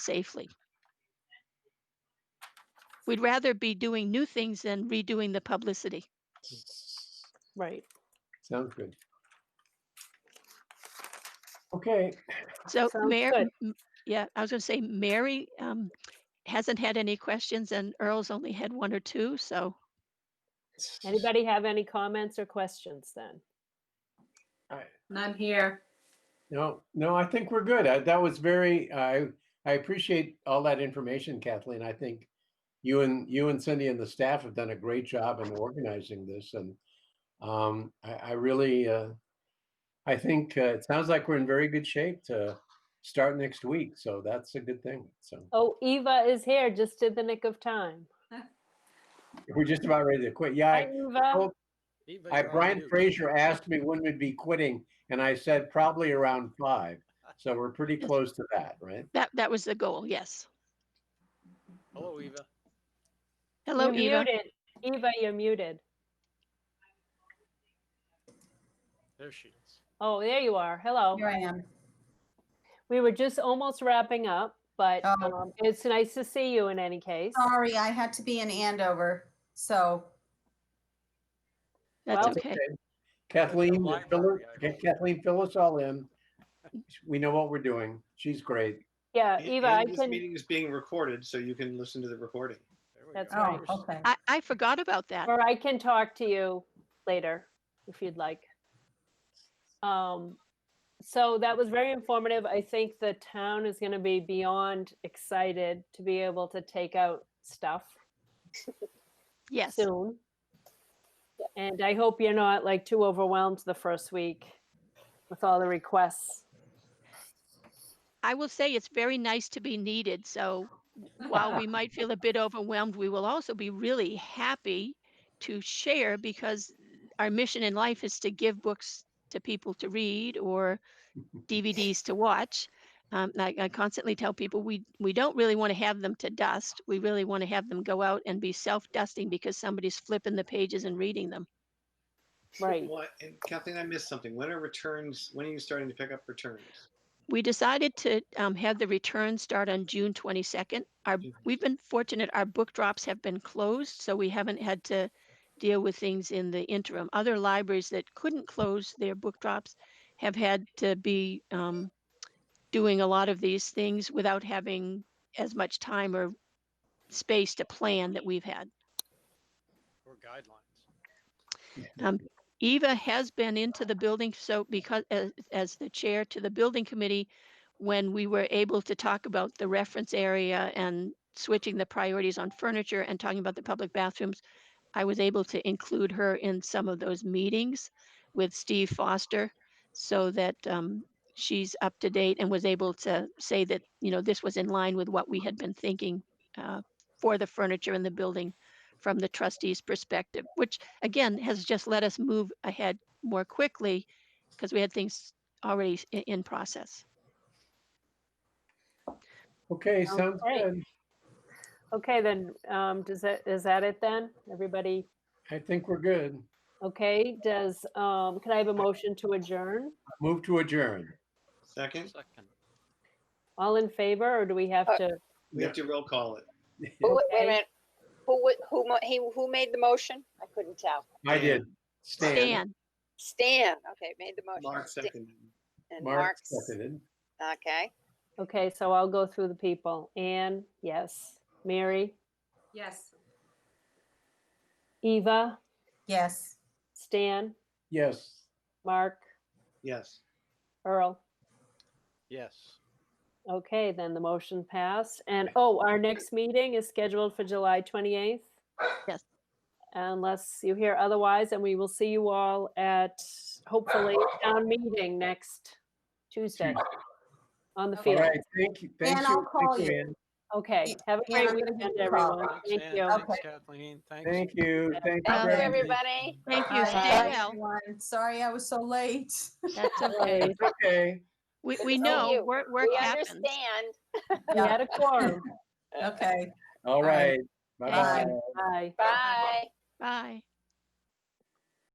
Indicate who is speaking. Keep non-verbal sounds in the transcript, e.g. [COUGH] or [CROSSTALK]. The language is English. Speaker 1: safely. We'd rather be doing new things than redoing the publicity.
Speaker 2: Right.
Speaker 3: Sounds good. Okay,
Speaker 1: So
Speaker 2: Sounds
Speaker 1: Mary,
Speaker 2: good.
Speaker 1: m- yeah, I was gonna say Mary um, hasn't had any questions and Earl's only had one or two, so
Speaker 2: Anybody have any comments or questions then?
Speaker 4: None here.
Speaker 3: no, no, I think we're good. I, that was very, I, I appreciate all that information, Kathleen. I think you and, you and Cindy and the staff have done a great job in organizing this and um, I, I really, uh, I think uh, it sounds like we're in very good shape to start next week. So that's a good thing. So
Speaker 2: Oh, Eva is here just in the nick of time.
Speaker 3: we're just about ready to quit. Yeah,
Speaker 2: Hi,
Speaker 3: I-
Speaker 2: Eva.
Speaker 3: told- I, Brian Fraser asked me when we'd be quitting and I said probably around five. So we're pretty close to that, right?
Speaker 1: that, that was the goal, yes.
Speaker 5: Hello, Eva.
Speaker 1: Hello,
Speaker 2: You're
Speaker 1: Eva.
Speaker 2: muted. Eva, you're muted.
Speaker 5: There she is.
Speaker 2: Oh, there you are. Hello.
Speaker 4: Here I am.
Speaker 2: We were just almost wrapping up, but
Speaker 4: Oh.
Speaker 2: um, it's nice to see you in any case.
Speaker 1: Oh.
Speaker 4: Sorry, I had to be in Andover, so
Speaker 1: That's
Speaker 2: Well-
Speaker 1: okay.
Speaker 3: Kathleen,
Speaker 5: library,
Speaker 3: fill her-
Speaker 5: I
Speaker 3: Ka-
Speaker 5: believe.
Speaker 3: Kathleen, fill us all in. We know what we're doing. She's great.
Speaker 2: Yeah,
Speaker 6: And-
Speaker 2: Eva,
Speaker 6: and
Speaker 2: I
Speaker 6: this
Speaker 2: can,
Speaker 6: Meeting is being recorded, so you can listen to the recording.
Speaker 5: There we
Speaker 2: That's
Speaker 5: go.
Speaker 2: right.
Speaker 4: oh, okay.
Speaker 1: I, I forgot about that.
Speaker 2: or I can talk to you later if you'd like. Um, so that was very informative. I think the town is going to be beyond excited to be able to take out stuff
Speaker 1: Yes,
Speaker 2: soon. And I hope you're not like too overwhelmed the first week with all the requests.
Speaker 1: I will say it's very nice to be needed, so while we might feel a bit overwhelmed, we will also be really happy to share because our mission in life is to give books to people to read or DVDs to watch. Um, I, I constantly tell people we we don't really want to have them to dust. We really want to have them go out and be self-dusting because somebody's flipping the pages and reading them.
Speaker 2: Right.
Speaker 6: Well, and Kathleen, I missed something. When are returns, when are you starting to pick up returns?
Speaker 1: we decided to um, have the return start on June 22nd. Our,
Speaker 6: Mhm.
Speaker 1: we've been fortunate, our book drops have been closed, so we haven't had to deal with things in the interim. Other libraries that couldn't close their book drops have had to be um, doing a lot of these things without having as much time or space to plan that we've had.
Speaker 5: Or guidelines.
Speaker 1: Eva has been into the building, so because, as, as the chair to the building committee, when we were able to talk about the reference area and switching the priorities on furniture and talking about the public bathrooms, I was able to include her in some of those meetings with Steve Foster so that um, she's up to date and was able to say that, you know, this was in line with what we had been thinking uh, for the furniture in the building from the trustees' perspective, which again has just let us move ahead more quickly because we had things already s- i- in process.
Speaker 3: Okay,
Speaker 2: Sounds
Speaker 3: sounds
Speaker 2: great.
Speaker 3: good.
Speaker 2: Okay, then, um, does that, is that it then? Everybody
Speaker 3: I think we're good.
Speaker 2: okay? Does, um, can I have a motion to adjourn?
Speaker 3: Move to adjourn.
Speaker 6: Second,
Speaker 5: Second.
Speaker 2: All in favor, or do we have
Speaker 7: Uh,
Speaker 2: to?
Speaker 6: we have to roll call it.
Speaker 7: Who, wait
Speaker 2: Okay.
Speaker 7: a minute. Who, wa- who, mo- he, who made the motion? I couldn't tell.
Speaker 3: I did. Stan.
Speaker 1: Stan,
Speaker 7: Stan, okay, made the motion.
Speaker 6: Mark
Speaker 7: Sta-
Speaker 6: seconded.
Speaker 7: And
Speaker 3: Mark
Speaker 7: Mark's,
Speaker 3: seconded.
Speaker 7: okay.
Speaker 2: Okay, so I'll go through the people. Anne, yes. Mary,
Speaker 4: yes.
Speaker 2: Eva,
Speaker 4: Yes.
Speaker 2: Stan,
Speaker 3: Yes.
Speaker 2: Mark,
Speaker 6: Yes.
Speaker 2: Earl.
Speaker 5: Yes.
Speaker 2: Okay, then the motion passed. And, oh, our next meeting is scheduled for July 28th.
Speaker 1: Yes.
Speaker 2: Unless you hear otherwise, and we will see you all at hopefully town meeting next Tuesday on the
Speaker 4: Okay.
Speaker 3: All
Speaker 2: field.
Speaker 3: right, thank you. Thank
Speaker 4: Ann,
Speaker 3: you.
Speaker 4: I'll call
Speaker 3: Thank
Speaker 4: you.
Speaker 3: Ann.
Speaker 2: Okay, have a
Speaker 4: Yeah,
Speaker 2: great
Speaker 4: I'm gonna give
Speaker 2: weekend,
Speaker 4: you a call.
Speaker 2: everyone.
Speaker 5: Thanks,
Speaker 2: Thank
Speaker 5: Ann.
Speaker 2: you.
Speaker 5: Thanks,
Speaker 4: Okay.
Speaker 5: Kathleen. Thanks.
Speaker 3: Thanhank you. Thank you.
Speaker 1: Um,
Speaker 7: Thank you,
Speaker 1: Alright.
Speaker 3: everybody.
Speaker 7: everybody.
Speaker 1: thank you. Stay
Speaker 4: Bye,
Speaker 1: well.
Speaker 4: everyone. Sorry I was so late.
Speaker 1: That's
Speaker 7: [LAUGHS]
Speaker 1: okay.
Speaker 2: Bye.
Speaker 3: It's Okay.
Speaker 1: We, we
Speaker 7: Thank
Speaker 1: know
Speaker 7: you.
Speaker 1: work, work
Speaker 7: We
Speaker 1: happens.
Speaker 7: understand.
Speaker 2: We had a quorum.
Speaker 4: Okay.
Speaker 3: All
Speaker 4: right.
Speaker 3: right. Bye-bye.
Speaker 4: Bye.
Speaker 2: Bye.
Speaker 7: Bye.
Speaker 1: Bye.